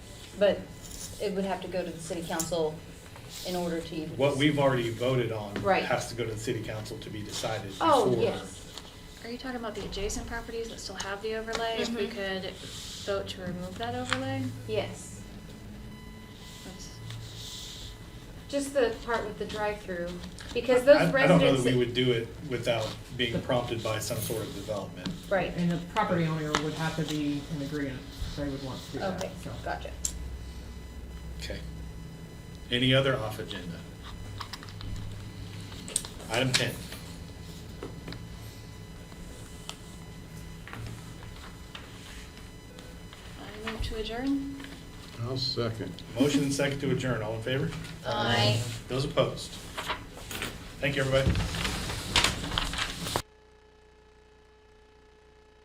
But it would have to go to the city council in order to even. What we've already voted on Right. has to go to the city council to be decided before. Oh, yes. Are you talking about the adjacent properties that still have the overlay? If we Mhm. could vote to remove that overlay? Yes. That's- Just the part with the drive-through, because I- those I don't know residents. that we would do it without being prompted by some sort of development. Right. And the property owner would have to be in agreement, they would want to do that, Okay, so. gotcha. Okay. Any other off agenda? Item ten. I move to adjourn? I'll second. Motion and second to adjourn. All in favor? Aye. Those opposed? Thank you, everybody.